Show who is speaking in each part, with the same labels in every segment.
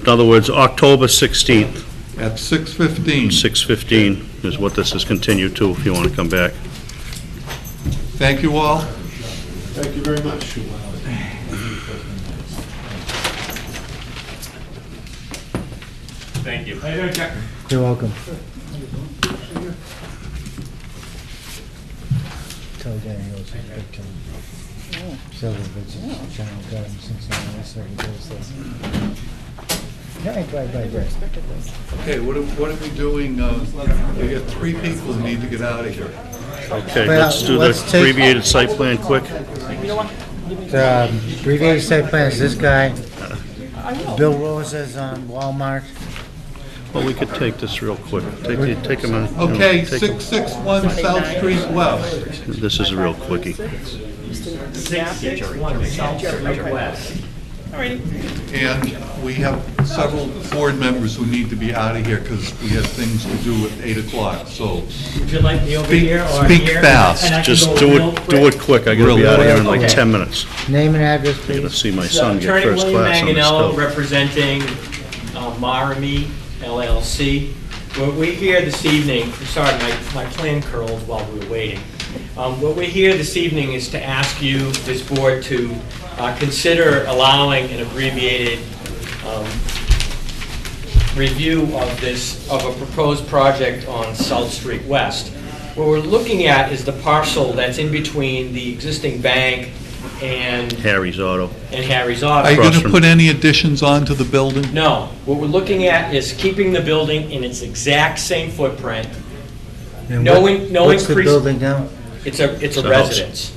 Speaker 1: in other words, October 16th,
Speaker 2: At 6:15.
Speaker 1: 6:15 is what this is continued to, if you want to come back.
Speaker 2: Thank you all.
Speaker 3: Thank you very much.
Speaker 4: Thank you.
Speaker 5: You're welcome. Tell Danny Rose he's big time. Several visits, general government since I was there, he does this. Right, right, right, right.
Speaker 2: Okay, what are, what are we doing? uh, We got three people who need to get out of here.
Speaker 1: Okay,
Speaker 5: Well,
Speaker 1: let's do the
Speaker 5: let's take-
Speaker 1: abbreviated site plan quick.
Speaker 5: The um, abbreviated site plan is this guy. Bill Rosa's on Walmart.
Speaker 1: Well, we could take this real quick. Take, the- take a minute.
Speaker 2: Okay,
Speaker 1: Take a-
Speaker 2: 661 South Street West.
Speaker 1: This is a real quickie.
Speaker 2: And we have several board members who need to be out of here because we have things to do at 8 o'clock, so.
Speaker 6: Would you like me over
Speaker 2: Speak-
Speaker 6: here or
Speaker 2: speak
Speaker 6: here?
Speaker 2: fast.
Speaker 6: And I can
Speaker 1: Just
Speaker 6: go
Speaker 1: do
Speaker 6: real
Speaker 1: it, do
Speaker 6: quick.
Speaker 1: it quick. I gotta be out of here in like
Speaker 6: Okay.
Speaker 1: 10 minutes.
Speaker 5: Name and address,
Speaker 1: I gotta
Speaker 5: please.
Speaker 1: see my
Speaker 6: So,
Speaker 1: son get first class on
Speaker 6: Attorney William
Speaker 1: this
Speaker 6: Manganello,
Speaker 1: stuff.
Speaker 6: representing uh, Maramy LLC. What we're here this evening, sorry, my, my plan curled while we were waiting. Um, What we're here this evening is to ask you, this board, to uh, consider allowing an abbreviated um, review of this, of a proposed project on South Street West. What we're looking at is the parcel that's in between the existing bank and
Speaker 1: Harry's Auto.
Speaker 6: and Harry's Auto.
Speaker 2: Are you going
Speaker 1: Across
Speaker 2: to
Speaker 1: from-
Speaker 2: put any additions onto the building?
Speaker 6: No, what we're looking at is keeping the building in its exact same footprint.
Speaker 5: And
Speaker 6: No
Speaker 5: what-
Speaker 6: in- no
Speaker 5: What's the
Speaker 6: increase-
Speaker 5: building now?
Speaker 6: It's a, it's
Speaker 1: It's
Speaker 6: a
Speaker 1: a house.
Speaker 6: residence.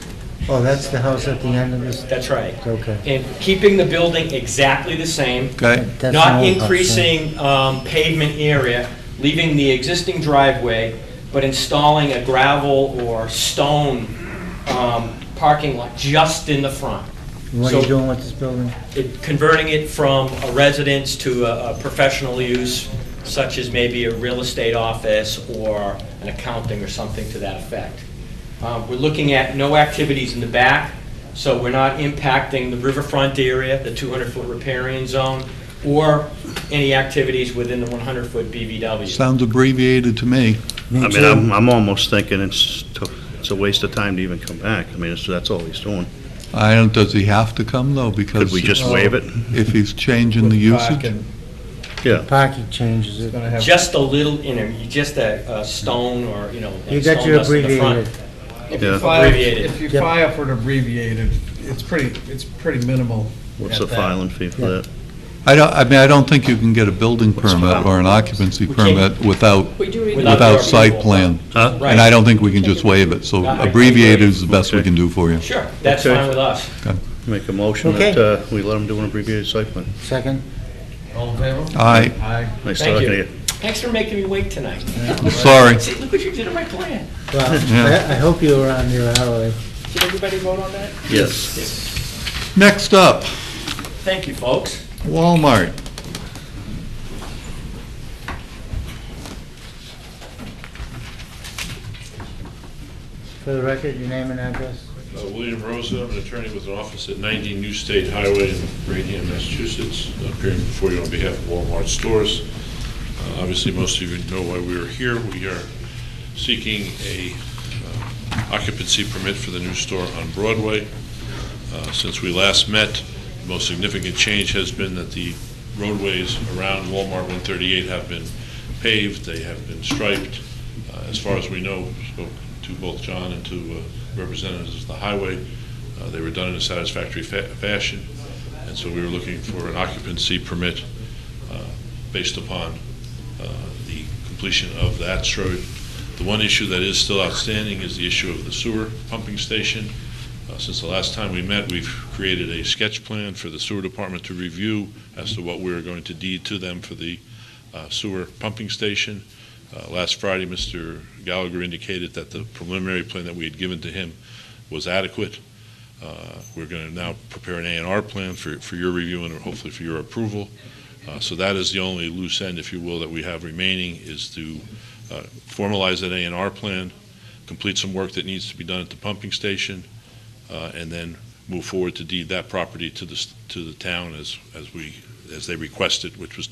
Speaker 5: Oh, that's the house at the end of this?
Speaker 6: That's right.
Speaker 5: Okay.
Speaker 6: And keeping the building exactly the same,
Speaker 2: Okay,
Speaker 5: That's an
Speaker 6: not
Speaker 5: old house, right?
Speaker 6: increasing um, pavement area, leaving the existing driveway, but installing a gravel or stone um, parking lot just in the front.
Speaker 5: What are you
Speaker 6: So-
Speaker 5: doing with this building?
Speaker 6: it- converting it from a residence to a a professional use, such as maybe a real estate office or an accounting or something to that effect. Um, We're looking at no activities in the back, so we're not impacting the riverfront area, the 200-foot riparian zone, or any activities within the 100-foot BVW.
Speaker 2: sounds abbreviated to me.
Speaker 1: I mean, I'm, I'm almost thinking it's, to- it's a waste of time to even come back. I mean, it's- that's all he's doing.
Speaker 2: I don't, does he have to come though? Because. uh,
Speaker 1: Could we just waive it?
Speaker 2: If he's changing the usage?
Speaker 1: Yeah.
Speaker 5: Parking changes it.
Speaker 6: Just a little, you know, just a a stone or, you know,
Speaker 5: You
Speaker 6: a
Speaker 5: got
Speaker 6: stone
Speaker 5: your
Speaker 6: dust in the front.
Speaker 5: abbreviated.
Speaker 3: If you
Speaker 1: Yeah.
Speaker 3: file,
Speaker 6: Abbreviated.
Speaker 3: if you
Speaker 5: Yep.
Speaker 3: file for an abbreviated, it's pretty, it's pretty minimal.
Speaker 1: What's
Speaker 3: at
Speaker 1: the
Speaker 3: that.
Speaker 1: filing fee for
Speaker 5: Yeah.
Speaker 1: that?
Speaker 2: I don't, I mean, I don't think you can get a building
Speaker 1: What's
Speaker 2: permit
Speaker 1: that?
Speaker 2: or an occupancy
Speaker 6: We can't-
Speaker 2: permit without,
Speaker 7: We do
Speaker 6: Without
Speaker 2: without
Speaker 6: your
Speaker 2: site
Speaker 6: approval.
Speaker 2: plan.
Speaker 1: Huh?
Speaker 6: Right.
Speaker 2: And I don't think we can just waive it, so
Speaker 6: I- I
Speaker 2: abbreviated
Speaker 6: agree.
Speaker 2: is the best we
Speaker 1: Okay.
Speaker 2: can do for you.
Speaker 6: Sure, that's
Speaker 1: Okay.
Speaker 6: fine with us.
Speaker 1: Make a motion that
Speaker 5: Okay.
Speaker 1: uh, we let him do an abbreviated site plan.
Speaker 5: Second?
Speaker 3: All in favor?
Speaker 2: Aye.
Speaker 3: Aye.
Speaker 1: Nice
Speaker 6: Thank
Speaker 1: talking to
Speaker 6: you.
Speaker 1: you.
Speaker 6: Thanks for making me wait tonight.
Speaker 2: I'm sorry.
Speaker 6: See, look what you did to my plan.
Speaker 5: Well,
Speaker 2: Yeah.
Speaker 5: I I hope you were on your hourly.
Speaker 6: Did everybody vote on that?
Speaker 1: Yes.
Speaker 2: Next up,
Speaker 6: Thank you, folks.
Speaker 2: Walmart.
Speaker 5: For the record, your name and address?
Speaker 8: Uh, William Rosa, I'm an attorney with an office at 90 New State Highway in Rainham, Massachusetts, appearing before you on behalf of Walmart stores. Uh, Obviously, most of you know why we are here. We are seeking a uh, occupancy permit for the new store on Broadway. Uh, Since we last met, the most significant change has been that the roadways around Walmart 138 have been paved, they have been striped. Uh, As far as we know, spoke to both John and to uh, representatives of the highway, uh, they were done in a satisfactory fa- fashion, and so we were looking for an occupancy permit uh, based upon uh, the completion of that road. The one issue that is still outstanding is the issue of the sewer pumping station. Uh, Since the last time we met, we've created a sketch plan for the sewer department to review as to what we're going to deed to them for the uh, sewer pumping station. Uh, Last Friday, Mr. Gallagher indicated that the preliminary plan that we had given to him was adequate. Uh, We're going to now prepare an A and R plan for, for your review and hopefully for your approval. Uh, So that is the only loose end, if you will, that we have remaining, is to uh, formalize that A and R plan, complete some work that needs to be done at the pumping station, uh, and then move forward to deed that property to the, s- to the town as, as we, as they requested, which was